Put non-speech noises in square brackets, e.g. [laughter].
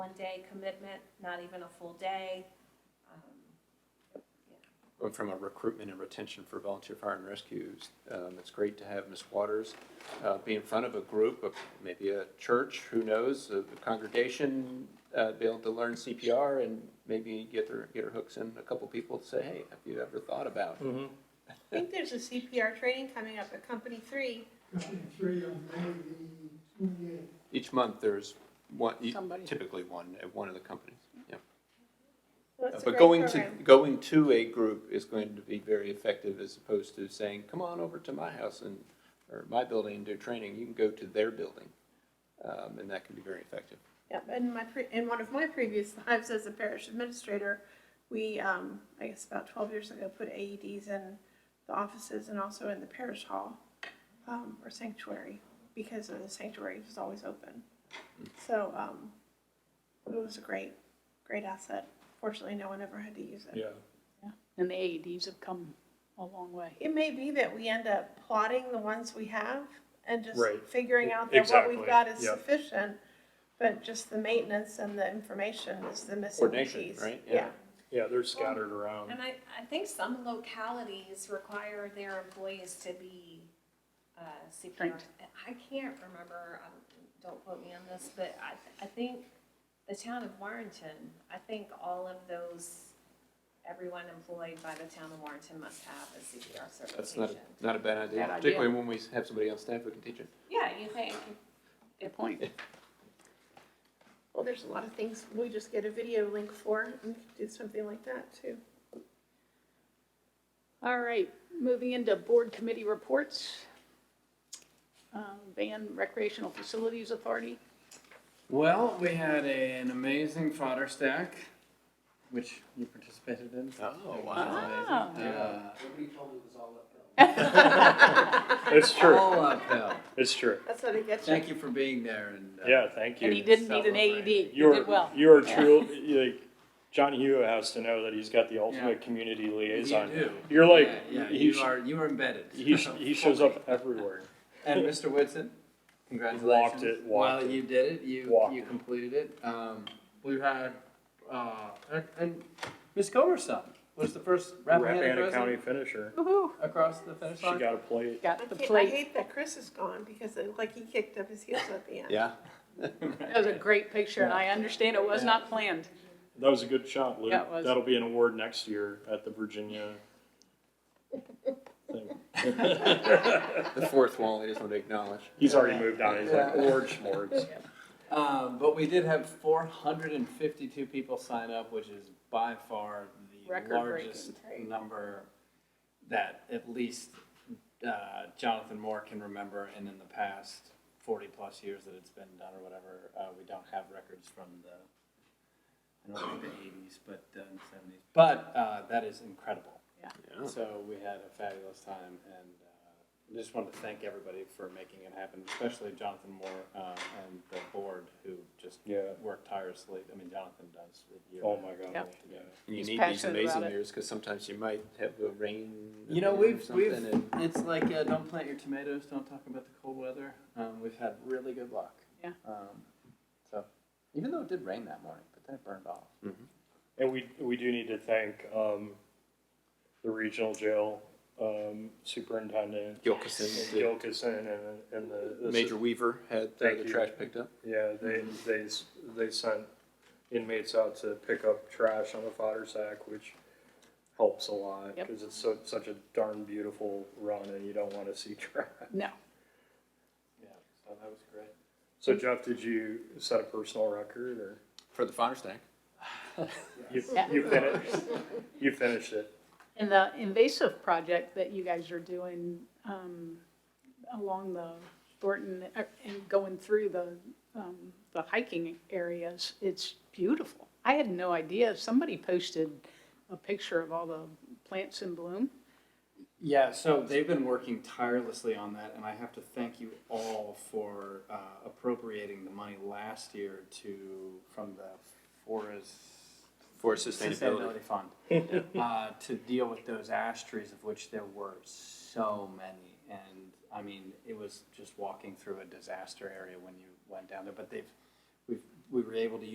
one-day commitment, not even a full day. Um, Well, From a recruitment and retention for volunteer fire and rescues, um, it's great to have Ms. Waters uh, be in front of a group, of maybe a church, who knows, a congregation, uh, be able to learn CPR and maybe get their, get her hooks in a couple people to say, hey, have you ever thought about? I think there's a CPR training coming up at Company Three. Company three on May the twenty-eighth. Each month, there's one, e typically one, at one of the companies, yeah. So it's a Uh, But great going to, program. going to a group is going to be very effective as opposed to saying, come on over to my house and, or my building and do training. You can go to their building. Um, and that can be very effective. Yep, in my, pre- in one of my previous lives as a parish administrator, we, um, I guess about twelve years ago, put AEDs in the offices and also in the parish hall, um, or sanctuary, because of the sanctuary was always open. So, um, it was a great, great asset. Fortunately, no one ever had to use it. Yeah, And the AEDs have come a long way. It may be that we end up plotting the ones we have and just Right. figuring out that what we've Exactly. got is Yep. sufficient. But just the maintenance and the information is the missing piece. Coordination, right? Yeah. Yeah, yeah, they're scattered around. And I, I think some localities require their employees to be uh, CPR. Trained. I can't remember, um, don't quote me on this, but I, I think the town of Warrenton, I think all of those, everyone employed by the town of Warrenton must have a CPR That's not, certification. a- not a bad idea, Bad idea. particularly when we have somebody on staff who can teach it. Yeah, you think, Good point. well, there's a lot of things we just get a video link for and we could do something like that too. All right, moving into board committee reports. Um, Van Recreational Facilities Authority, Well, we had a- an amazing fodder stack, which you participated in. Oh, Which was wow. amazing. Uh, Nobody told me it was all uphill. It's true, All uphill. it's true. That's how they get you. Thank you for being there and. uh, Yeah, thank and he you. didn't need an AED, he You're, did well. you're Yeah. truly, like, John Hugh has to know that he's got the ultimate community You liaison. do. You're like, Yeah, yeah, he, you sh- are, you are embedded. he, sh- he shows up everywhere. [laughs] And Mr. Whitson, congratulations. it, walked Well, it. you did it, you, Walked you it. completed it. Um, we had, uh, and- and Ms. Comerson was the first Rappahannock Rappahannock County resident finisher. Woohoo, across the finish She line. got a I plate. got the can't- I plate. hate that Chris is gone because it- like he kicked up his heels at the end. Yeah. That was a great picture, and I understand it was not planned. That was a good shot, Luke. Yeah, it was. That'll be an award next year at the Virginia. thing. The fourth wall, I just want to acknowledge. He's already moved on. He's like Yeah. award [laughs] schmorgs. Um, but we did have 452 people sign up, which is by far the Record-breaking. largest number that at least uh, Jonathan Moore can remember, and in the past 40 plus years that it's been done or whatever, uh, we don't have records from the I don't think the 80s, but uh, and 70s. But uh, that is incredible. Yeah. So we had a fabulous time, and uh, I just wanted to thank everybody for making it happen, especially Jonathan Moore uh, and the board who just Yeah. worked tirelusly. I mean, Jonathan does it year. Oh my god. Yep. Yeah. And You He's need these passionate about amazing it. years because sometimes you might have a rain. You know, event or we've something we've and- it's like uh, don't plant your tomatoes, don't talk about the cold weather. Um, we've had really good luck. Yeah. Um, so even though it did rain that morning, but then it burned off. And we we do need to thank um, the regional jail um, superintendent Gilkison, the Gilkison and and the, the Major Weaver had uh, Thank the you. trash picked up. Yeah, they they s- they sent inmates out to pick up trash on the fodder sack, which helps a lot Yep. because it's so, such a darn beautiful run, and you don't want to see [laughs] trash. No, Yeah. So that was great. So Jeff, did you set a personal record or For the fire stack. you, Yeah. you finished? You finished it. and the invasive project that you guys are doing um, along the Thornton, uh, and going through the, um, the hiking areas, it's beautiful. I had no idea, somebody posted a picture of all the plants in bloom. Yeah, so they've been working tirelessly on that, and I have to thank you all for uh, appropriating the money last year to from the forest For sustainability. sustainability fund uh, to deal with those ash trees, of which there were so many. And I mean, it was just walking through a disaster area when you went down there. But they've we've, we were able to